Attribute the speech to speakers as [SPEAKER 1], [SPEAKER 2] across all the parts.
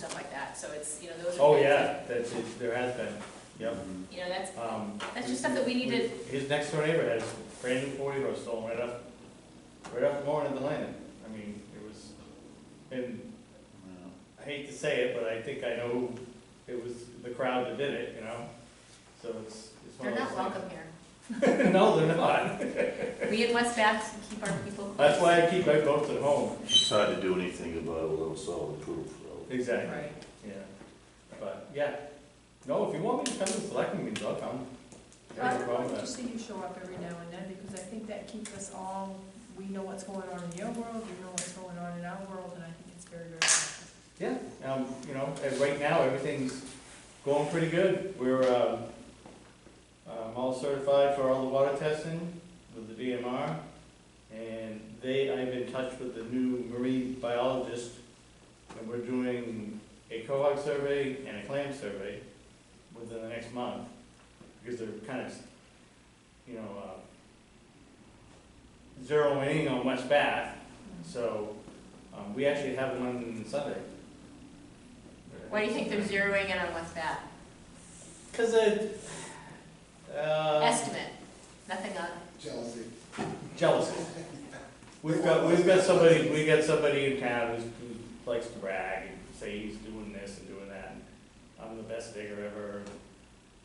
[SPEAKER 1] that, so it's, you know, those are.
[SPEAKER 2] Oh, yeah, that's, it- there has been, yep.
[SPEAKER 1] You know, that's,
[SPEAKER 2] Um,
[SPEAKER 1] That's just stuff that we need to-
[SPEAKER 2] His next door neighbor had his brand new forty door stolen right up, right up Lauren and the landing. I mean, it was, and I hate to say it, but I think I know who, it was the crowd that did it, you know? So it's, it's one
[SPEAKER 1] they're
[SPEAKER 2] of those
[SPEAKER 1] not
[SPEAKER 2] things.
[SPEAKER 1] welcome here.
[SPEAKER 2] No, they're not.
[SPEAKER 1] We in West Bath keep our people.
[SPEAKER 2] That's why I keep my boats at home.
[SPEAKER 3] It's hard to do anything about it without solid proof, though.
[SPEAKER 2] Exactly,
[SPEAKER 1] Right.
[SPEAKER 2] yeah. But, yeah. No, if you want me to come to selectmen meetings, I'll come.
[SPEAKER 4] I
[SPEAKER 2] There's no
[SPEAKER 4] would
[SPEAKER 2] problem
[SPEAKER 4] like
[SPEAKER 2] with
[SPEAKER 4] to
[SPEAKER 2] that.
[SPEAKER 4] see you show up every now and then, because I think that keeps us all, we know what's going on in your world, we know what's going on in our world, and I think it's very, very helpful.
[SPEAKER 2] Yeah, um, you know, and right now, everything's going pretty good. We're, um, um, all certified for all the water testing with the DMR. And they, I'm in touch with the new marine biologist, and we're doing a cohort survey and a clam survey within the next month. Because they're kind of, you know, uh, zeroing in on West Bath, so, um, we actually have one Sunday.
[SPEAKER 1] Why do you think they're zeroing in on West Bath?
[SPEAKER 2] Cause it, uh,
[SPEAKER 1] Estimate, nothing on,
[SPEAKER 5] Jealousy.
[SPEAKER 2] jealousy. We've got, we've got somebody, we've got somebody in town who's, who likes to brag and say he's doing this and doing that. I'm the best digger ever,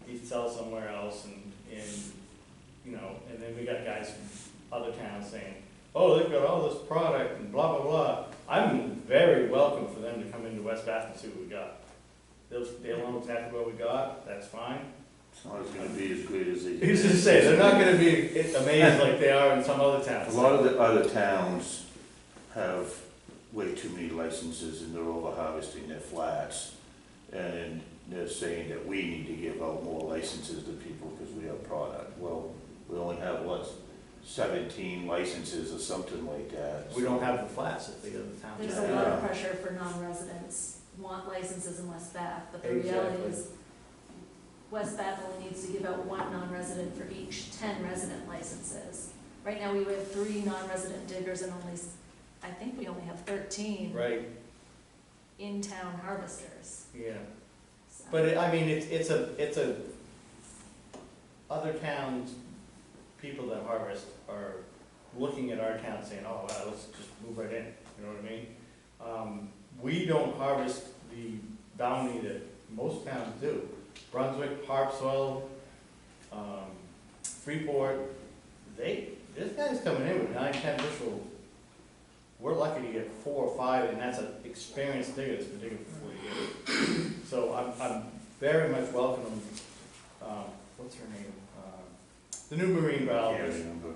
[SPEAKER 2] he sells somewhere else and, and, you know, and then we got guys from other towns saying, oh, they've got all this product and blah, blah, blah. I'm very welcome for them to come into West Bath and see what we got. They'll, they'll know exactly what we got, that's fine.
[SPEAKER 3] It's not gonna be as great as it
[SPEAKER 2] Who's to say, they're not gonna be amazed like they are in some other
[SPEAKER 3] A
[SPEAKER 2] towns.
[SPEAKER 3] lot of the other towns have way too many licenses and they're over harvesting their flats. And they're saying that we need to give out more licenses to people because we have product. Well, we only have, what, seventeen licenses or something like that.
[SPEAKER 2] We don't have the flats that the other towns
[SPEAKER 6] There's
[SPEAKER 2] have.
[SPEAKER 6] a lot of pressure for non-residents want licenses in West Bath, but the reality is West Bath only needs to give out one non-resident for each ten resident licenses. Right now, we have three non-resident diggers and only, s- I think we only have thirteen
[SPEAKER 2] Right,
[SPEAKER 6] in-town harvesters.
[SPEAKER 2] yeah,
[SPEAKER 6] so.
[SPEAKER 2] but it- I mean, it's, it's a, it's a, other towns, people that harvest are looking at our town saying, oh, wow, let's just move right in, you know what I mean? Um, we don't harvest the bounty that most towns do. Brunswick, Harpswell, um, Freeport, they, this guy's coming in with nine, ten bushel. We're lucky to get four or five, and that's an experienced digger that's been digging for forty years. So I'm, I'm very much welcoming, um, what's her name? Um, The new marine
[SPEAKER 3] I can't
[SPEAKER 2] biologist.
[SPEAKER 3] remember.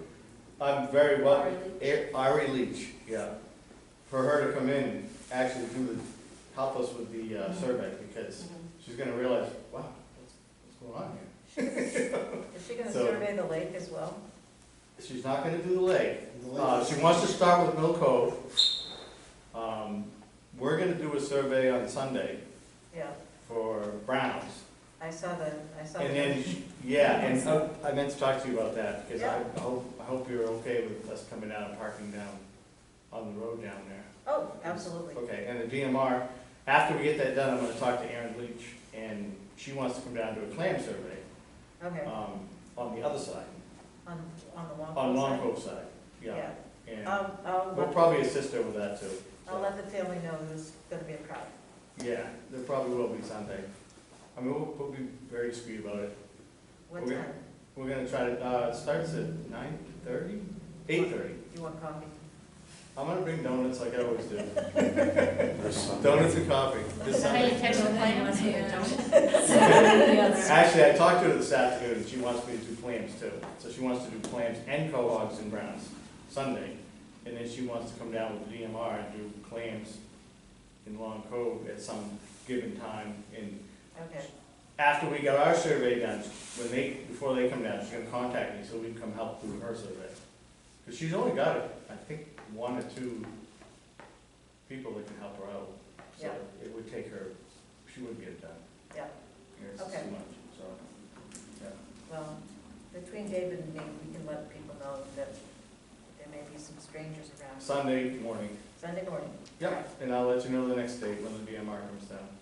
[SPEAKER 2] I'm very welcome.
[SPEAKER 6] Ari Leach.
[SPEAKER 2] A- Ari Leach, yeah. For her to come in, actually do the, help us with the uh, survey, because she's gonna realize, wow, what's, what's going on here?
[SPEAKER 7] Is she gonna
[SPEAKER 2] So-
[SPEAKER 7] survey the lake as well?
[SPEAKER 2] She's not gonna do the lake. Uh, she wants to start with Mill Cove. Um, we're gonna do a survey on Sunday
[SPEAKER 7] Yeah,
[SPEAKER 2] for Browns.
[SPEAKER 7] I saw the, I saw the.
[SPEAKER 2] And then, yeah, and I- I meant to talk to you about that, because I
[SPEAKER 7] Yeah.
[SPEAKER 2] I hope, I hope you're okay with us coming down and parking down on the road down there.
[SPEAKER 7] Oh, absolutely.
[SPEAKER 2] Okay, and the DMR, after we get that done, I'm gonna talk to Erin Leach, and she wants to come down to a clam survey,
[SPEAKER 7] Okay,
[SPEAKER 2] um, on the other side,
[SPEAKER 7] on, on the Long Pond
[SPEAKER 2] on Long
[SPEAKER 7] side.
[SPEAKER 2] Cove side, yeah. And
[SPEAKER 7] I'll, I'll,
[SPEAKER 2] we'll
[SPEAKER 7] let-
[SPEAKER 2] probably assist her with that too. so,
[SPEAKER 7] I'll let the family know there's gonna be a crowd.
[SPEAKER 2] Yeah, there probably will be Sunday. I mean, we'll, we'll be very discreet about it.
[SPEAKER 7] What
[SPEAKER 2] Okay.
[SPEAKER 7] time?
[SPEAKER 2] We're gonna try to, uh, it starts at nine thirty, eight thirty.
[SPEAKER 7] Do you want coffee?
[SPEAKER 2] I'm gonna bring donuts like I always do,
[SPEAKER 3] That's something.
[SPEAKER 2] donuts and coffee this
[SPEAKER 1] how you
[SPEAKER 2] Sunday.
[SPEAKER 1] catch the plane once you don't.
[SPEAKER 6] Yes.
[SPEAKER 2] Actually, I talked to her this afternoon, and she wants me to do clams too. So she wants to do clams and cohogs and browns Sunday, and then she wants to come down with the DMR and do clams in Long Cove at some given time. And
[SPEAKER 7] Okay,
[SPEAKER 2] after we got our survey done, when they, before they come down, she's gonna contact me so we can come help do her survey. Because she's only got, I think, one or two people that can help her out. So
[SPEAKER 7] Yeah.
[SPEAKER 2] it would take her, she wouldn't get it done.
[SPEAKER 7] Yeah.
[SPEAKER 2] It's too much,
[SPEAKER 7] Okay.
[SPEAKER 2] so.
[SPEAKER 7] well, between David and me, we can let people know that there may be some strangers around
[SPEAKER 2] Sunday morning.
[SPEAKER 7] Sunday morning.
[SPEAKER 2] And I'll let you know the next date when the DMR comes down.